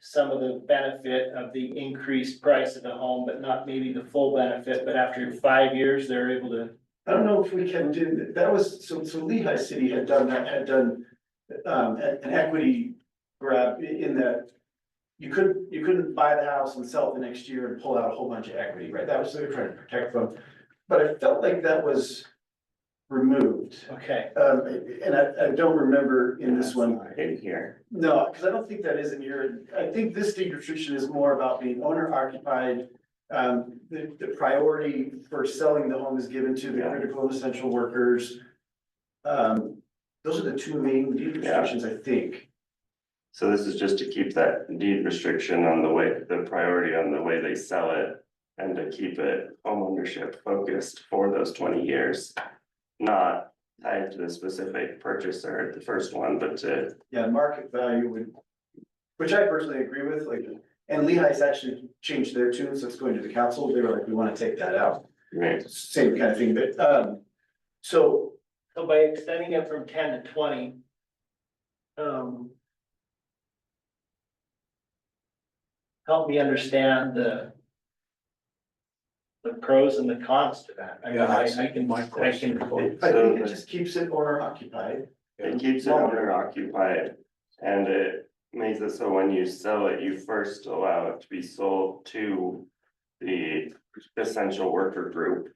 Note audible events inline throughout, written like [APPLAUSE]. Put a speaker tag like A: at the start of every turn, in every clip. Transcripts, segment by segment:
A: some of the benefit of the increased price of the home, but not maybe the full benefit, but after five years, they're able to.
B: I don't know if we can do, that. that was, so, so Lehigh City had done that, had done, um, an an equity grab i- in that. You couldn't, you couldn't buy the house and sell it the next year and pull out a whole bunch of equity, right? That was what they were trying to protect from. But I felt like that was removed.
A: Okay,
B: Um, and I, I don't remember in this one,
C: In here.
B: no, because I don't think that is in your, I think this deed restriction is more about being owner occupied. Um, the, the priority for selling the home is given to the
C: Yeah.
B: critical and essential workers. Um, those are the two main deed
C: Yeah.
B: restrictions, I think.
C: So this is just to keep that deed restriction on the way, the priority on the way they sell it. And to keep it homeownership focused for those twenty years. Not tied to the specific purchaser, the first one, but to,
B: Yeah, market value would, which I personally agree with, like, and Lehigh's actually changed their tune, so it's going to the council. They were like, we want to take that out.
C: right,
B: Same kind of thing, but, um, so
A: so by extending it from ten to twenty. Um. Help me understand the. The pros and the cons to that. I mean,
D: Yeah,
A: I,
D: that's
A: I can,
D: my
A: I can.
D: question.
B: I think it just keeps it owner occupied.
C: it keeps it owner occupied. And it makes it so when you sell it, you first allow it to be sold to the essential worker group.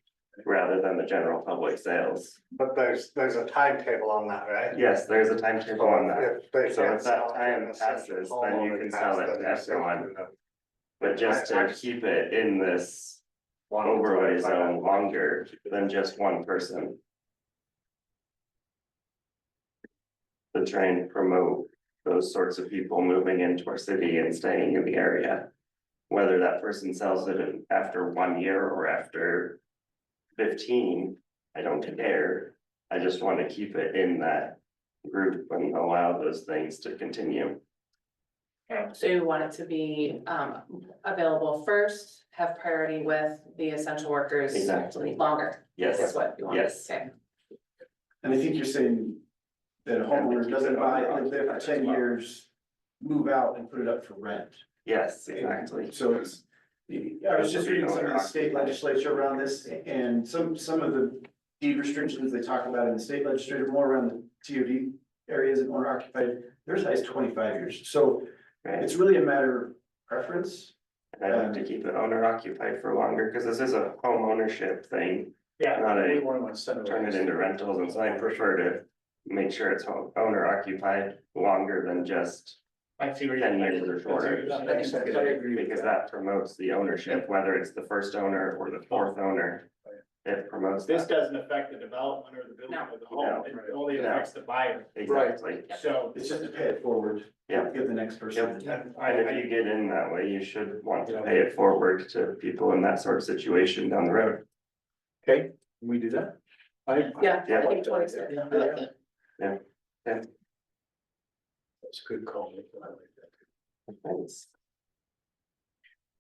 C: Rather than the general public sales.
E: But there's, there's a timetable on that, right?
C: Yes, there's a timetable on that.
E: If they
C: So
E: can't
C: if that
E: sell it to
C: time
E: an essential
C: passes, then you
E: homeowner,
C: can
E: that's
C: sell it
E: the
C: to
E: decision
C: everyone.
E: of
C: But just
E: I- I
C: to
E: just-
C: keep it in this
E: one
C: overlay
E: to five.
C: zone longer than just one person. To try and promote those sorts of people moving into our city and staying in the area. Whether that person sells it in- after one year or after fifteen, I don't care. I just want to keep it in that group and allow those things to continue.
F: So you want it to be um available first, have priority with the essential workers.
C: Exactly.
F: Longer, is
C: Yes,
F: what you want to
C: Yes.
F: say.
B: And I think you're saying that a homeowner doesn't buy, it, live there for ten years, move out and put it up for rent.
C: yes, exactly.
B: So it's, I was just reading some of the state legislature around this and some, some of the deed restrictions they talk about in the state legislature, more around the TOD areas and owner occupied, theirs is twenty-five years. So
C: Right,
B: it's really a matter of preference.
C: and I'd like to keep it owner occupied for longer, because this is a home ownership thing, not a, turn it into rentals, and so I prefer to. Make sure it's home owner occupied longer than just
A: I see where you're.
C: ten years or shorter.
A: That makes sense. I agree with
C: Because
A: that.
C: that promotes the ownership, whether it's the first owner or the fourth owner. It promotes
A: This
C: that,
A: doesn't affect the development or the building
F: No.
A: of the home,
C: No.
A: it only affects the buyer,
C: exactly,
A: so.
B: It's just to pay it forward.
C: Yeah.
B: Give the next person.
C: and if you get in that way, you should want to pay it forward to people in that sort of situation down the road.
D: We do that? I.
F: Yeah,
C: Yeah.
F: I think twenty six.
C: Yeah. Yeah.
D: That's a good call. I like that.
C: Thanks.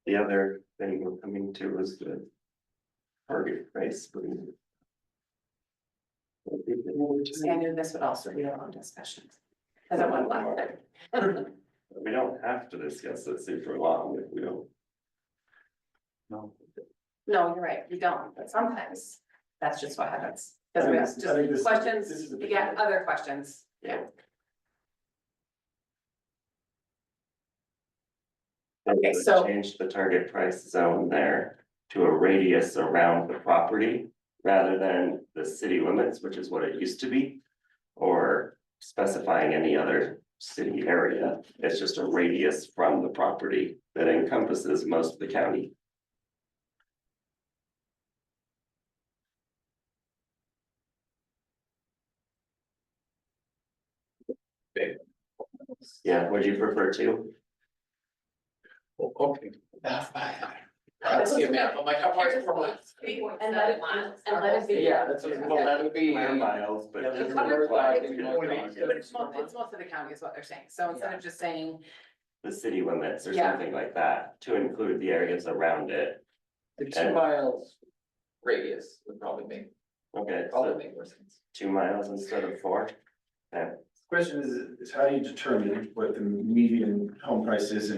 C: The other thing we're coming to is the target price. but-
F: See, I knew this would also be a long discussion. Cause I want to laugh.
C: [LAUGHS] We don't have to discuss it super long if we don't.
D: No.
F: No, you're right, you don't, but sometimes that's just what happens. Cause we
B: I
F: ask
B: think- I think this- this is
F: just questions,
B: the
F: you get
B: beginning.
F: other questions. Okay, so-
C: Change the target price zone there to a radius around the property rather than the city limits, which is what it used to be. Or specifying any other city area, it's just a radius from the property that encompasses most of the county. Yeah, would you prefer to?
D: Oh, Okay.
F: This is-
G: And let it, and let it be.
F: Yeah,
G: that's
F: what-
G: Well, that would be.
C: Square miles, but.
G: Yeah,
F: but it's
G: like-
F: But it's most, it's most of the county is what they're saying, so instead of just saying,
C: The city limits or
F: Yeah.
C: something like that, to include the areas around it.
G: The two miles radius would probably make,
C: Okay,
G: probably
C: so
G: make more sense.
C: two miles instead of four.
B: Question is, is how do you determine what the median home price is in